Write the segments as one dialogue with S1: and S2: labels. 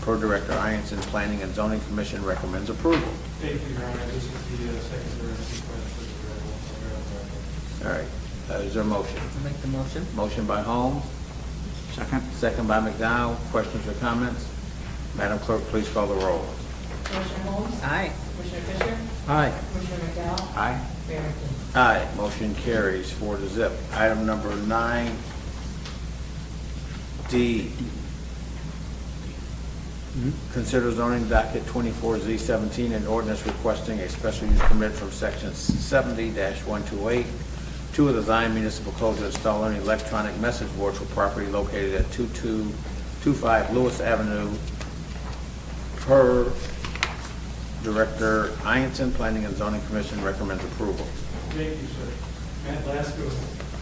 S1: Pro Director Ianson, Planning and Zoning Commission recommends approval.
S2: Thank you, Your Honor. This is the uh, second emergency request for the
S1: All
S2: Rebel Program.
S1: right, uh, is there a motion?
S3: Make the motion.
S1: Motion by Holmes,
S4: Second?
S1: second by McDowell. Questions or comments? Madam Clerk, please call the roll.
S5: Commissioner Holmes?
S3: Aye.
S5: Commissioner Fisher?
S1: Aye.
S5: Commissioner McDowell?
S1: Aye.
S5: Mayor McKinney?
S1: Aye, motion carries four to zip. Item number nine, D. Consider zoning docket twenty-four Z seventeen and ordinance requesting a special use permit from section seventy one two eight, two of the Zion Municipal Code to install an electronic message board for property located at two-two-two-five Lewis Avenue per Director Ianson, Planning and Zoning Commission recommends approval.
S2: Thank you, sir. Matt Lasko,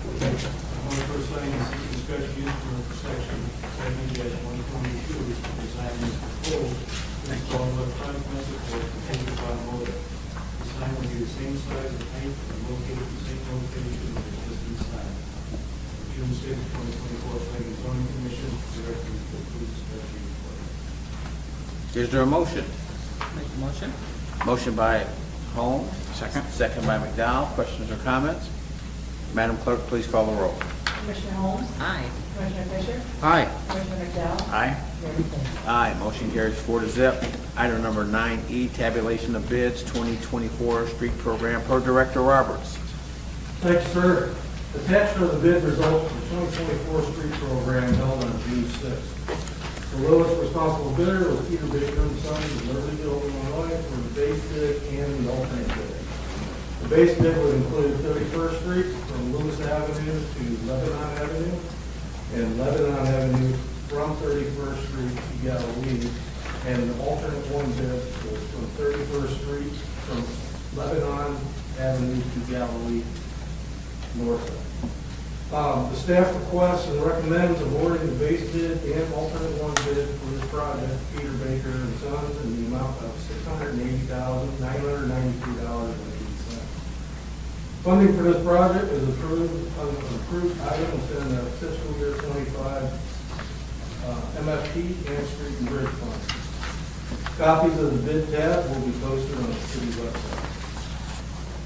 S2: I'm on first line, this is the special use permit for section seventy one twenty-two, which is designed as proposed, to install an electronic message board contained by motor. The sign will be the same size and height and located in the same location as the existing sign. June sixth, twenty twenty-four, planning and zoning commission, directly approves special use permit.
S1: Is there a motion?
S3: Make the motion.
S1: Motion by Holmes.
S4: Second.
S1: Second by McDowell. Questions or comments? Madam Clerk, please call the roll.
S5: Commissioner Holmes?
S3: Aye.
S5: Commissioner Fisher?
S1: Aye.
S5: Commissioner McDowell?
S1: Aye.
S5: Mayor McKinney?
S1: Aye, motion carries four to zip. Item number nine E, tabulation of bids, 2024 street program per Director Roberts.
S6: Thanks, sir. Attached are the bid results for the 2024 street program held on June 6th. The lowest responsible bidder was Peter Baker and Sons of Libertyville, Illinois, for the base bid and the alternate bid. The base bid would include 31st Street from Lewis Avenue to Lebanon Avenue, and Lebanon Avenue from 31st Street to Galilee, and an alternate one bid was from 31st Street from Lebanon Avenue to Galilee north. Um, The staff requests and recommends awarding the base bid and alternate one bid for this project, Peter Baker and Sons, in the amount of six hundred and eighty thousand, nine hundred and ninety-two dollars and eighty cents. Funding for this project is approved, uh, approved items in the fiscal year twenty-five uh, MFP and Street and Bridge Fund. Copies of the bid tab will be posted on the city website.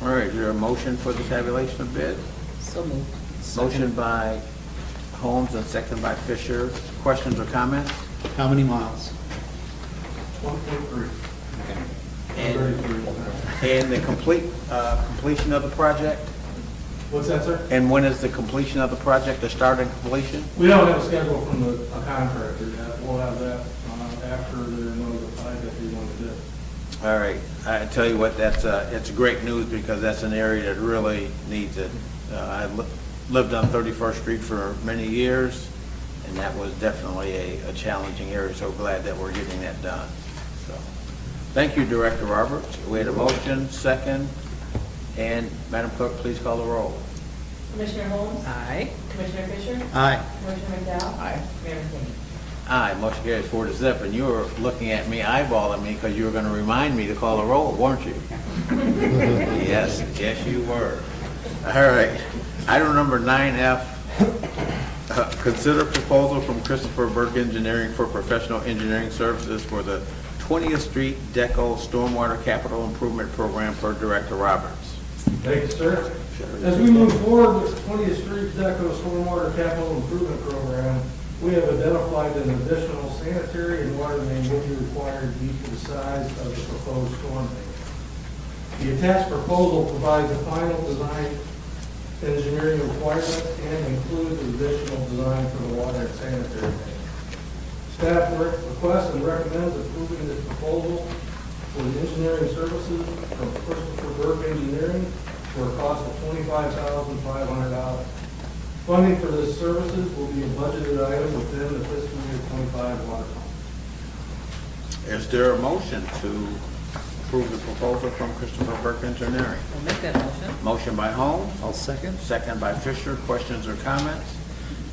S1: All right, is there a motion for the tabulation of bids?
S3: So moved.
S1: Motion by Holmes and second by Fisher. Questions or comments?
S4: How many miles?
S6: One point three.
S1: And and the complete, uh, completion of the project?
S6: What's that, sir?
S1: And when is the completion of the project, the start and completion?
S6: We don't have a schedule from the a contractor yet. We'll have that uh, after they're notified that they want to do. it.
S1: All right, I tell you what, that's, uh, it's great news because that's an area that really needs it. Uh, I li- lived on 31st Street for many years, and that was definitely a, a challenging area, so glad that we're getting that done. So, Thank you, Director Roberts. We had a motion, second, and Madam Clerk, please call the roll.
S5: Commissioner Holmes?
S3: Aye.
S5: Commissioner Fisher?
S4: Aye.
S5: Commissioner McDowell?
S1: Aye.
S5: Mayor McKinney?
S1: Aye, motion carries four to zip, and you were looking at me eyeballing me because you were gonna remind me to call the roll, weren't you? Yes, yes, you were. All right, item number nine F, uh, consider proposal from Christopher Burke Engineering for professional engineering services for the Twentieth Street Deco Stormwater Capital Improvement Program per Director Roberts.
S6: Thank you, sir. As we move forward with the 20th Street Deco Stormwater Capital Improvement Program, we have identified an additional sanitary and water main will be required due to the size of the proposed storm main. The attached proposal provides the final design engineering requirements and includes additional design for the water and sanitary main. Staff re- requests and recommends approving this proposal for the engineering services from Christopher Burke Engineering for a cost of twenty-five thousand five hundred dollars. Funding for this services will be a budgeted item within the fiscal year twenty-five water fund.
S1: Is there a motion to approve the proposal from Christopher Burke Engineering?
S3: I'll make that motion.
S1: Motion by Holmes?
S4: I'll second.
S1: Second by Fisher. Questions or comments?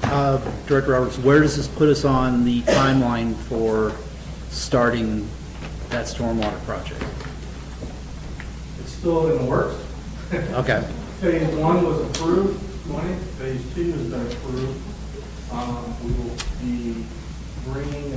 S4: Uh, Director Roberts, where does this put us on the timeline for starting that stormwater project?
S6: It's still in the works.
S4: Okay,
S6: Phase one was approved, twenty, phase two has been approved. Um, we will be bringing